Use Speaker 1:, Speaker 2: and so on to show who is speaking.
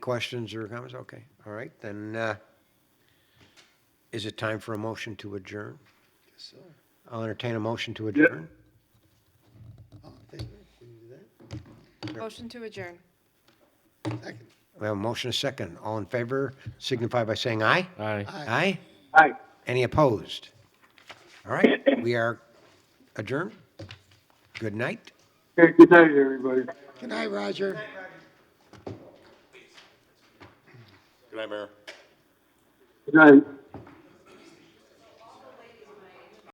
Speaker 1: Questions or comments? Okay, all right, then, uh, is it time for a motion to adjourn? I'll entertain a motion to adjourn.
Speaker 2: Motion to adjourn.
Speaker 1: We have a motion, a second. All in favor signify by saying aye.
Speaker 3: Aye.
Speaker 1: Aye?
Speaker 4: Aye.
Speaker 1: Any opposed? All right, we are adjourned. Good night.
Speaker 4: Okay, good night, everybody.
Speaker 1: Good night, Roger.
Speaker 4: Good night.